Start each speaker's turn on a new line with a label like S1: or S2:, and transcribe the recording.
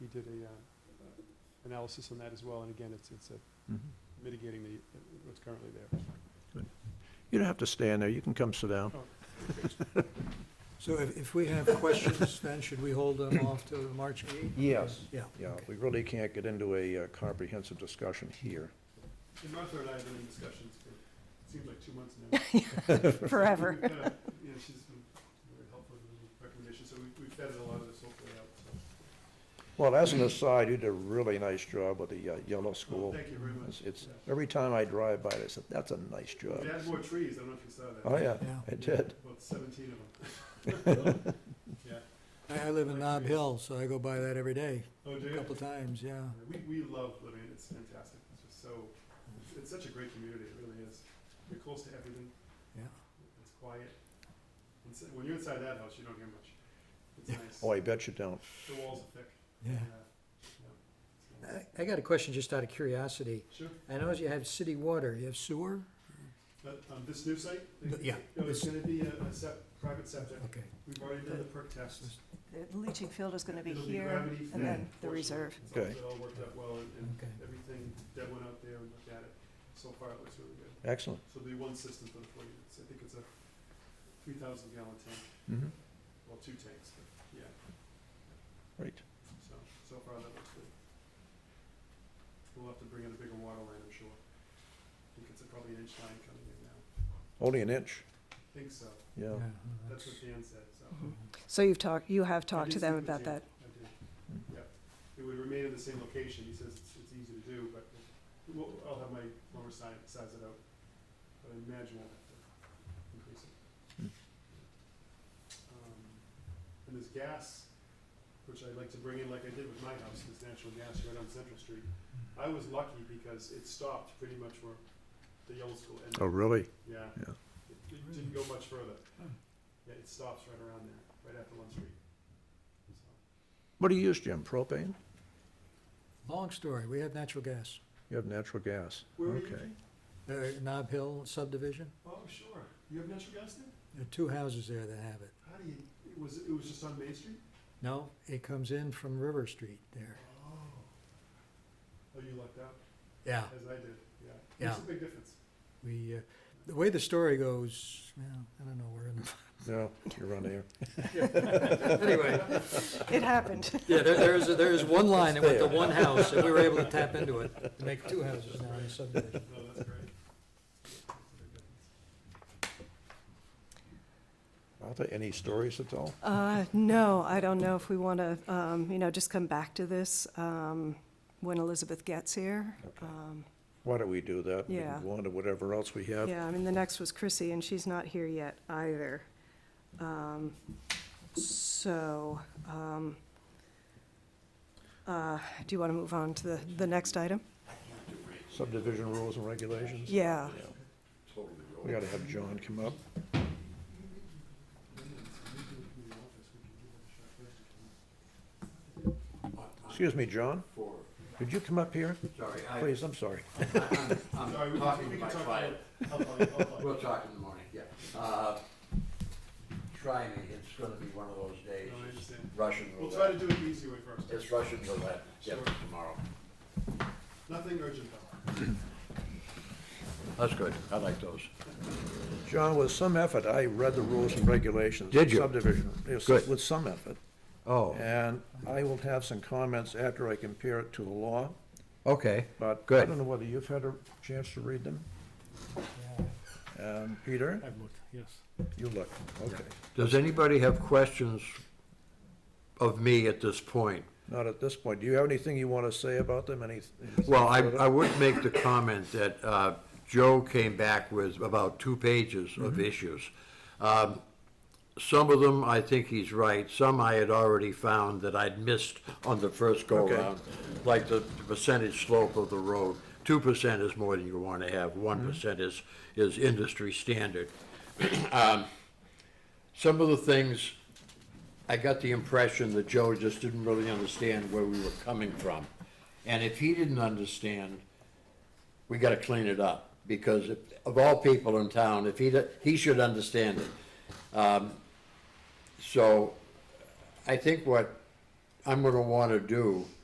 S1: did a, um, analysis on that as well, and again, it's, it's uh, mitigating the, what's currently there.
S2: You don't have to stand there, you can come sit down.
S3: So if, if we have questions, then should we hold them off till March 8th?
S2: Yes.
S3: Yeah.
S2: Yeah, we really can't get into a uh, comprehensive discussion here.
S1: And Martha and I have been in discussions for, it seems like two months now.
S4: forever.
S1: We've kinda- You know, she's been very helpful with the recommendations, so we- we've vetted a lot of this hopefully out, so.
S2: Well, as an aside, you did a really nice job with the uh, yellow
S1: Well,
S2: school.
S1: Thank you very much.
S2: It's- It's,
S1: Yeah.
S2: every time I drive by it, I said, that's a nice job.
S1: We added more trees, I don't know if you saw that.
S2: Oh, yeah,
S3: Yeah.
S2: it did.
S1: About seventeen of them. Yeah,
S3: I, I live in Nob Hill, so I go by that every day,
S1: oh, do
S3: a
S1: you?
S3: couple times, yeah.
S1: We, we love living, it. it's fantastic, it's just so, it's- it's such a great community, it really is. You're close to everything.
S3: Yeah.
S1: It's quiet. It's- When you're inside that house, you don't hear much. It's nice.
S2: Oh, I bet you don't.
S1: The walls are thick.
S3: Yeah.
S1: yeah. So-
S3: I, I got a question just out of curiosity.
S1: Sure,
S3: I know you have city water, you have sewer?
S1: but um, this new site?
S3: But, yeah,
S1: No, it's
S3: this-
S1: gonna be a a sep- private septic.
S3: Okay.
S1: We've already done the perk test.
S4: The leaching field is going to be
S1: It'll
S4: here
S1: gravity fed,
S4: and then the
S1: fortunately.
S4: reserve.
S1: It's all-
S2: Okay.
S1: It all worked out well and- and
S3: Okay.
S1: everything, Deb went out there and looked at it. So far, it looks really good.
S2: Excellent.
S1: So there'll be one system for the four units. I think it's a three thousand gallon tank,
S2: Mhm.
S1: well, two tanks, but yeah,
S2: Great.
S1: so, so far that looks good. We'll have to bring in a bigger water line, I'm sure. I think it's a- probably an inch line coming in now.
S2: Only an inch,
S1: I think so.
S2: yeah.
S3: Yeah,
S1: That's what Dan said, so.
S4: Mhm. So you've talked, you have
S1: I
S4: talked
S1: did
S4: to
S1: speak
S4: them
S1: with
S4: about
S1: Dan.
S4: that.
S1: I did, yep. It would remain in the same location. He says it's, it's easy to do, but we'll, I'll have my plumber size, size it out. But I imagine we'll have to increase it. Um, And there's gas, which I'd like to bring in like I did with my house, this natural gas right on Central Street. I was lucky because it stopped pretty much where the yellow school ended.
S2: Oh, really?
S1: Yeah.
S2: Yeah.
S1: It it didn't go much further. Yeah, it stops right around there, right after one street. So,
S2: What do you use, Jim? Propane?
S3: Long story, we have natural gas.
S2: You have natural gas.
S1: Where are you?
S2: Okay.
S3: Uh, Nob Hill subdivision,
S1: Oh, sure. You have natural gas there?
S3: there are two houses there that have it.
S1: How do you, it was, it was just on Main Street?
S3: No, it comes in from River Street there.
S1: Oh. Oh, you lucked out,
S3: Yeah,
S1: as I did, yeah. Makes
S3: Yeah.
S1: a big difference.
S3: we, uh, the way the story goes, well, I don't know, we're in the
S2: No, you're on air.
S3: Anyway,
S4: It happened.
S3: yeah, there, there is, there is one line that went to one house, and we were able to tap into it to make two houses now in the subdivision.
S1: No, that's great. Yeah, makes a big difference.
S2: Martha, any stories at all?
S4: Uh, No, I don't know if we want to, you know, just come back to this um, when Elizabeth gets here.
S2: Okay.
S4: Um,
S2: Why don't we do that? We can
S4: Yeah.
S2: Go on to whatever else we have.
S4: Yeah, I mean, the next was Chrissy, and she's not here yet either. Um, So, um, uh, do you want to move on to the, the next item?
S2: Subdivision rules and regulations?
S4: Yeah.
S2: We gotta have John come up. Excuse me, John? Could you come up here?
S5: Sorry, I,
S2: Please, I'm sorry.
S5: I'm
S1: Sorry, we can,
S5: talking to
S1: we
S5: my
S1: can talk
S5: client.
S1: about it. I'll call you, I'll call you.
S5: We'll talk in the morning, yeah. Uh, Try me, it's gonna be one of those days.
S1: No, I understand.
S5: Russian
S1: We'll try to
S5: roulette.
S1: do it the easy way first.
S5: It's Russian roulette, yeah,
S1: Sure.
S5: tomorrow.
S1: Nothing urgent though.
S5: That's good, I like those.
S2: John, with some effort, I read the rules and regulations.
S5: Did you?
S2: Subdivision, yes,
S5: Good.
S2: with some effort.
S5: Oh,
S2: And I will have some comments after I compare it to the law,
S5: okay,
S2: but I
S5: Good.
S2: don't know whether you've had a chance to read them. Um, Peter,
S6: I've looked, yes.
S2: you look, okay.
S5: does anybody have questions of me at this point?
S2: Not at this point. Do you have anything you want to say about them? Any?
S5: Well, I, I would make the comment that uh, Joe came back with about two pages of issues. Um, Some of them, I think he's right, some I had already found that I'd missed on the first
S2: Okay.
S5: go-around, like the the percentage slope of the road. Two percent is more than you want to have, one percent is, is industry standard. Um, Some of the things, I got the impression that Joe just didn't really understand where we were coming from. And if he didn't understand, we gotta clean it up, because if- of all people in town, if he, d- he should understand it. Um, So, I think what I'm gonna wanna do